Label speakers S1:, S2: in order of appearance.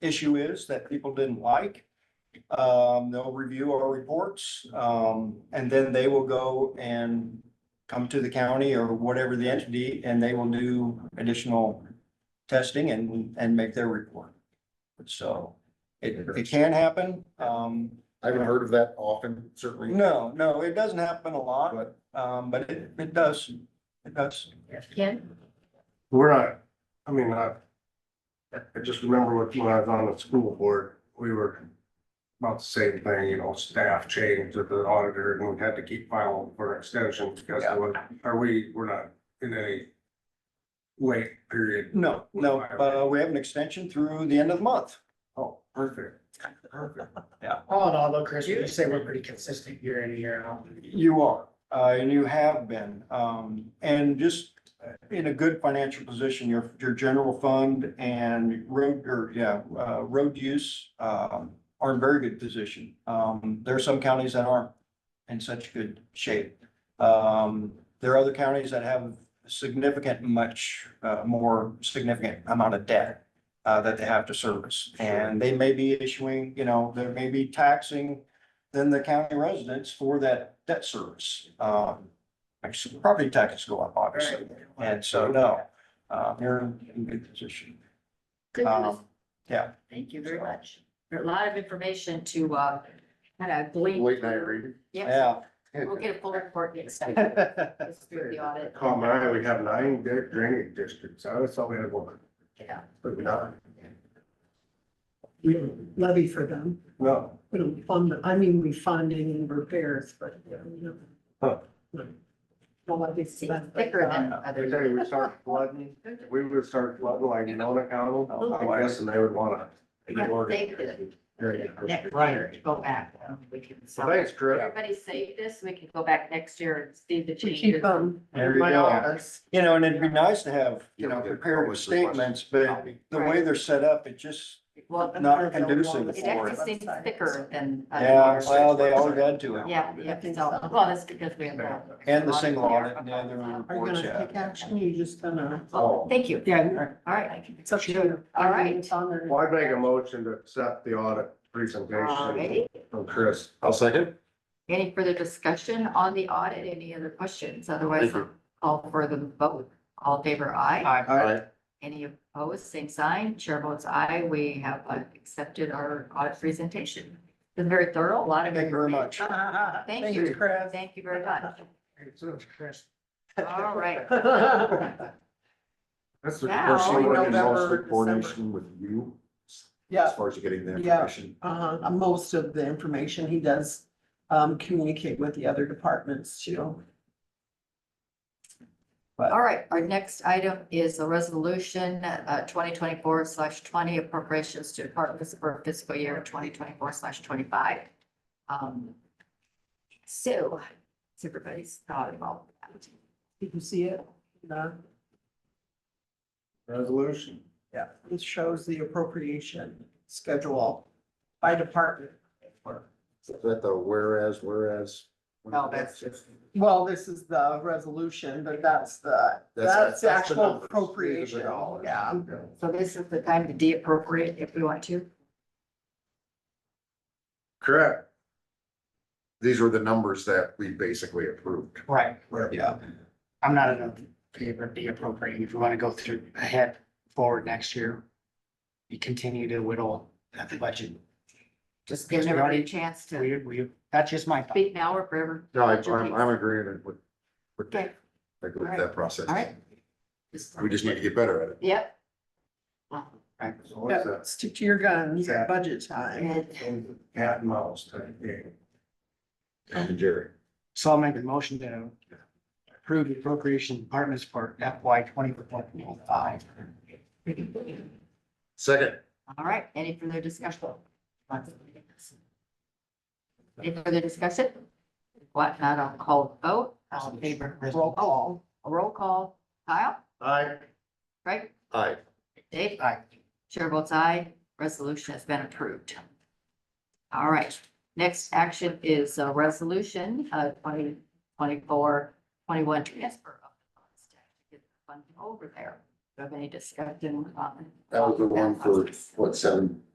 S1: issue is that people didn't like. Um, they'll review our reports, um, and then they will go and come to the county or whatever the entity, and they will do additional testing and, and make their report. So it, it can happen. Um,
S2: I haven't heard of that often, certainly,
S1: no, no, it doesn't happen a lot,
S2: but
S1: um, but it, it does, it does.
S3: Ken?
S4: We're not, I mean, I, I just remember when when I was on the school board, we were about the same thing, you know, staff changed at the auditor and we had to keep filing for extension because
S1: Yeah.
S4: what, are we, we're not in any late period.
S1: No, no, uh, we have an extension through the end of the month.
S4: Oh, perfect, perfect.
S5: All in all, though, Chris, you say we're pretty consistent year in, year out.
S1: You are, uh, and you have been, um, and just in a good financial position, your, your general fund and road, or, yeah, uh, road use, um, are in very good position. Um, there are some counties that aren't in such good shape. Um, there are other counties that have significant, much, uh, more significant amount of debt uh, that they have to service, and they may be issuing, you know, there may be taxing than the county residents for that debt service. Um, actually, property taxes go up, obviously, and so, no, uh, you're in good position.
S3: Good news.
S1: Um, yeah.
S3: Thank you very much. A lot of information to, uh, kind of glean.
S2: late night reading.
S3: Yes,
S1: Yeah.
S3: we'll get a full report next time. This is through the audit.
S4: Call my, eye, we have nine di- drainage districts, I always thought we had one,
S3: Yeah.
S4: but we don't,
S6: we don't levy for them.
S4: no.
S6: We don't fund, them. I mean, we fund in repairs, but, you
S4: Huh.
S6: know. Well, I think
S3: It's
S6: that's- uh,
S3: thicker than
S4: They
S3: others.
S4: say we start flooding, we would start flooding like Nona County,
S3: Oh,
S4: I guess, and they would wanna.
S3: They could. Next year, to go back. um, We can.
S2: Well, Thanks, Chris.
S3: Everybody save this. We can go back next year and see the
S6: We
S3: changes.
S6: keep them.
S1: There you
S6: My
S1: go.
S6: office.
S1: You know, and it'd be nice to have, you know,
S2: Yeah, we did
S1: prepared
S2: publish requests.
S1: statements, but the way
S3: Right.
S1: they're set up, it just,
S3: Well,
S1: Not conducive
S3: it
S1: for
S3: actually seems thicker than. other
S1: yeah,
S3: years.
S1: well, they all got to it.
S3: Yeah, yeah, so, well, that's because we have. the-
S1: And the single audit and the other
S6: Are you
S1: reports,
S6: gonna
S1: yeah.
S6: take action? You just gonna?
S3: Well, Thank you.
S6: Yeah.
S3: All right.
S6: It's up to you.
S3: All right.
S6: It's on there.
S4: Well, I'd make a motion to accept the audit
S3: All
S4: presentation
S3: righty.
S4: from Chris.
S2: I'll second.
S3: Any further discussion on the audit? Any other questions? Otherwise,
S2: Thank you.
S3: I'll for the vote. All in favor aye.
S1: Aye.
S2: All right.
S3: Any opposed, same sign. Chair votes aye. We have uh, accepted our audit presentation. Been very thorough, a lot of.
S1: Thank you very much.
S3: uh, Thank you.
S6: Chris.
S3: Thank you very much.
S5: Chris.
S3: All right.
S2: That's the
S3: Now,
S2: first one,
S6: November,
S2: most
S6: December.
S2: coordination with you, as
S6: Yeah,
S2: far as getting the
S6: Yeah.
S2: information.
S6: uh, most of the information he does, um, communicate with the other departments too.
S3: All right, our next item is a resolution, uh, twenty twenty-four slash twenty appropriations to departments for fiscal year twenty twenty-four slash twenty-five. Um, so, it's everybody's thought about that.
S6: Did you see it? No.
S4: Resolution.
S6: Yeah, this shows the appropriation schedule by department.
S2: Is that the whereas, whereas?
S3: No, that's
S6: Well, this is the resolution, but that's the,
S2: That's-
S6: that's the
S2: that's the
S6: actual
S2: numbers.
S6: appropriation,
S2: These are the dollars.
S6: yeah.
S3: So this is the time to de-appropriate if we want to.
S4: Correct.
S2: These are the numbers that we basically approved.
S5: Right,
S1: Yeah.
S5: I'm not in a favor of de-appropriating. If we want to go through ahead, forward next year, we continue to whittle at the budget.
S3: Just giving everybody a chance to
S5: We, we, that's just my thought.
S3: speak now or forever.
S2: No, I, I'm, I'm agreeing with, with
S3: Okay,
S2: that, I agree with that process.
S3: all right.
S2: We just need to get better at it.
S3: Yep.
S4: So what's
S6: Yeah,
S4: that?
S6: Stick to your guns,
S4: Yeah.
S6: budget time.
S3: And
S4: Cat and mouse type thing.
S2: Tom and Jerry.
S5: So I'll make a motion to approve the appropriation departments for FY twenty-four, twenty-five.
S2: Second,
S3: All right, any further discussion? Any further discussion? What, not a call vote, all in favor, roll call, a roll call, Kyle,
S2: aye.
S3: Craig,
S2: Aye.
S3: Dave?
S5: Aye.
S3: Chair votes aye, resolution has been approved. All right, next action is a resolution, uh, twenty twenty-four, twenty-one transfer of the funds to get the fund over there.
S7: you have any discussion? um,
S3: That was the one for, what, seven,